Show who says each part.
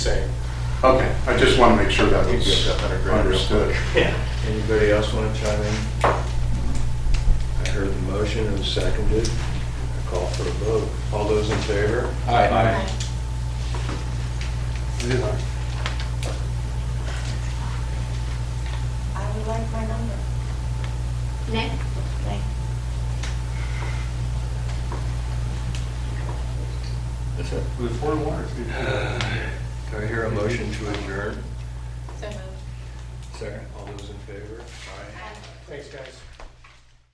Speaker 1: saying.
Speaker 2: Okay, I just want to make sure that was understood.
Speaker 1: Yeah.
Speaker 3: Anybody else want to chime in? I heard the motion and seconded. I call for a vote. All those in favor?
Speaker 1: Aye.
Speaker 4: I would like my number.
Speaker 5: Nick?
Speaker 4: Thank
Speaker 3: That's it.
Speaker 2: With four waters.
Speaker 3: Do I hear a motion to adjourn?
Speaker 5: So moved.
Speaker 3: Second. All those in favor? Aye.
Speaker 1: Thanks, guys.